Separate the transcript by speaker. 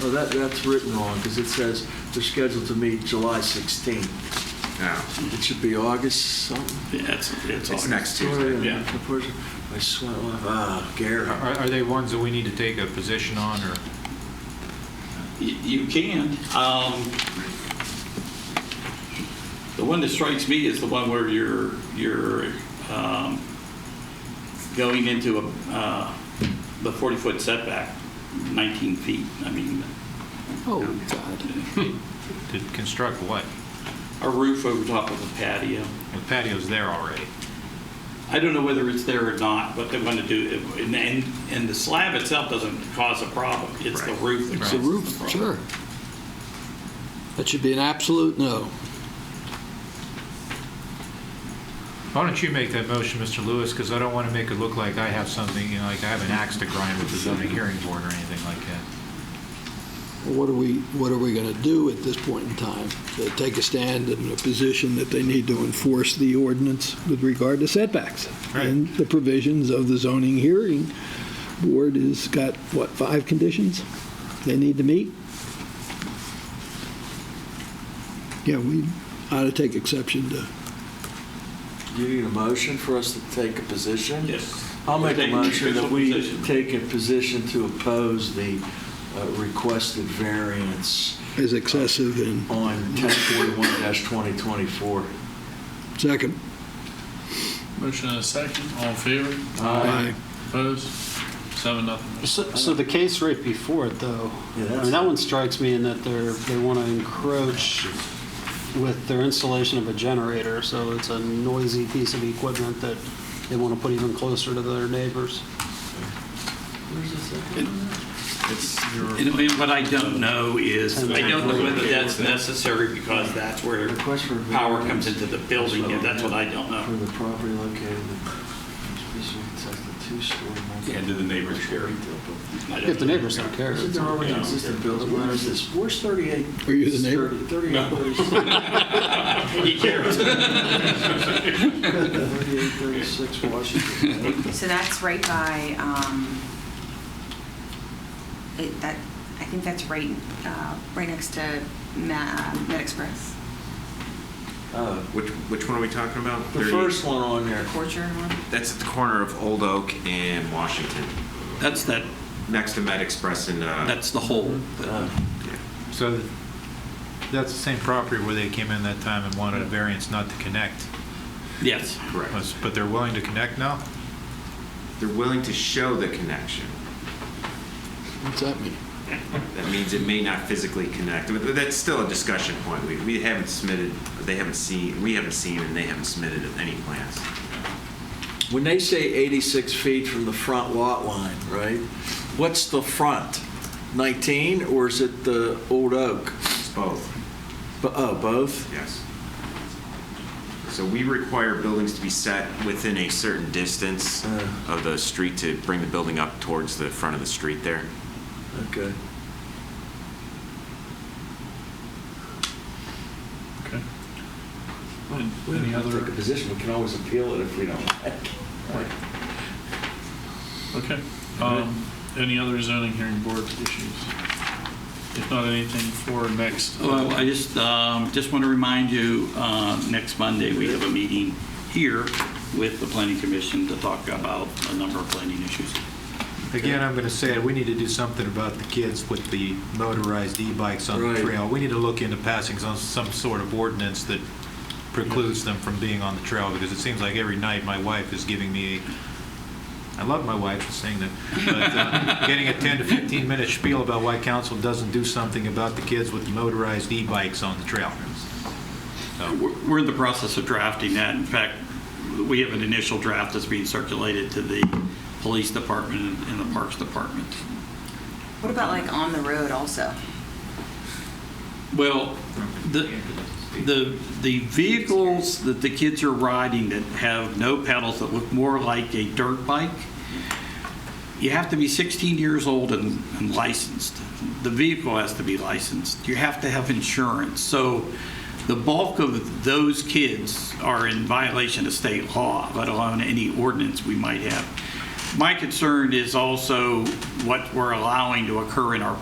Speaker 1: Oh, that, that's written wrong, because it says they're scheduled to meet July 16th.
Speaker 2: No,
Speaker 1: It should be August something.
Speaker 3: Yeah, it's, it's
Speaker 2: it's
Speaker 3: August.
Speaker 2: next Tuesday.
Speaker 1: Sorry,
Speaker 3: yeah.
Speaker 1: of course, I swear, ah, Gary.
Speaker 4: Are are they ones that we need to take a position on, or?
Speaker 3: Y- You can. Um, The one that strikes me is the one where you're, you're um, going into a, uh, the 40-foot setback, 19 feet. I mean,
Speaker 5: Oh, God.
Speaker 4: To construct what?
Speaker 3: a roof over top of a patio.
Speaker 4: The patio's there already.
Speaker 3: I don't know whether it's there or not, but they want to do, it. and, and- and the slab itself doesn't cause a problem. It's the
Speaker 2: Right.
Speaker 3: roof that
Speaker 4: It's
Speaker 3: causes
Speaker 4: the
Speaker 3: the
Speaker 5: The
Speaker 3: problem.
Speaker 5: roof, sure. That should be an absolute no.
Speaker 4: Why don't you make that motion, Mr. Lewis, because I don't want to make it look like I have something, you know, like I have an axe to grind with the zoning hearing board or anything like that.
Speaker 5: What are we, what are we going to do at this point in time? To take a stand in a position that they need to enforce the ordinance with regard to setbacks?
Speaker 4: Right.
Speaker 5: And the provisions of the zoning hearing board has got, what, five conditions they need to meet? Yeah, we ought to take exception to,
Speaker 1: You need a motion for us to take a position?
Speaker 3: Yes.
Speaker 1: I'll make a
Speaker 3: Take
Speaker 1: motion that
Speaker 3: official
Speaker 1: we
Speaker 3: position.
Speaker 1: take a position to oppose the uh, requested variance
Speaker 5: as excessive and
Speaker 1: on 1041-2024.
Speaker 5: second.
Speaker 6: Motion and a second, all in favor?
Speaker 5: Aye.
Speaker 6: Opposed? Seven, nothing.
Speaker 7: So so the case right before it, though,
Speaker 1: Yeah,
Speaker 7: I
Speaker 1: that's-
Speaker 7: mean, that one strikes me in that they're, they want to encroach with their installation of a generator, so it's a noisy piece of equipment that they want to put even closer to their neighbors.
Speaker 2: It's your
Speaker 3: And and what I don't know is, I don't know whether that's necessary because that's where
Speaker 1: Request for
Speaker 3: power
Speaker 1: variance
Speaker 3: comes into the building, and that's what I don't
Speaker 1: For
Speaker 3: know.
Speaker 1: the property located in special protected two-story. multi-
Speaker 2: Yeah, do the neighbors care?
Speaker 1: retail building.
Speaker 3: I don't
Speaker 7: If the
Speaker 3: know.
Speaker 7: neighbors don't care.
Speaker 1: Isn't there already an existing building? Where is this? Where's 38?
Speaker 5: Are you the neighbor?
Speaker 1: 38, 36,
Speaker 3: He cares.
Speaker 1: 38, 36 Washington.
Speaker 8: So that's right by, um, it, that, I think that's right, uh, right next to Ma, Med Express,
Speaker 1: Uh,
Speaker 2: Which, which one are we talking about?
Speaker 1: The
Speaker 2: 30?
Speaker 1: first one on there.
Speaker 8: the Corcher one.
Speaker 2: That's at the corner of Old Oak and Washington,
Speaker 3: That's that,
Speaker 2: next to Med Express and, uh,
Speaker 3: that's the whole.
Speaker 1: Uh,
Speaker 2: yeah.
Speaker 4: So th- that's the same property where they came in that time and wanted a variance not to connect,
Speaker 3: Yes.
Speaker 2: correct.
Speaker 4: but they're willing to connect now?
Speaker 2: They're willing to show the connection.
Speaker 5: What's that mean?
Speaker 2: That means it may not physically connect, but that's still a discussion point. We, we haven't submitted, they haven't seen, we haven't seen and they haven't submitted any plans.
Speaker 1: When they say 86 feet from the front lot line, right? What's the front? 19 or is it the old oak?
Speaker 2: It's both.
Speaker 1: B- Oh, both?
Speaker 2: Yes. So we require buildings to be set within a certain distance
Speaker 1: Uh.
Speaker 2: of the street to bring the building up towards the front of the street there.
Speaker 1: Okay.
Speaker 6: Okay.
Speaker 1: We don't
Speaker 6: Any
Speaker 1: have to
Speaker 6: other,
Speaker 1: take a position. We can always appeal it if we don't like it.
Speaker 6: okay. Um, Any other zoning hearing board issues? If not, anything for next?
Speaker 3: Well, I just, um, just want to remind you, uh, next Monday, we have a meeting here with the planning commission to talk about a number of planning issues.
Speaker 4: Again, I'm going to say it, we need to do something about the kids with the motorized e-bikes on
Speaker 1: Right.
Speaker 4: the trail. We need to look into passing some, some sort of ordinance that precludes them from being on the trail, because it seems like every night my wife is giving me, I love my wife for saying that, but uh, getting a 10 to 15-minute spiel about why council doesn't do something about the kids with motorized e-bikes on the trail.
Speaker 3: Uh, We're we're in the process of drafting that. In fact, we have an initial draft that's being circulated to the police department and the parks department.
Speaker 8: What about like on the road also?
Speaker 3: Well, the, the, the vehicles that the kids are riding that have no pedals, that look more like a dirt bike, you have to be 16 years old and and licensed. The vehicle has to be licensed. You have to have insurance. So the bulk of those kids are in violation of state law, let alone any ordinance we might have. My concern is also what we're allowing to occur in our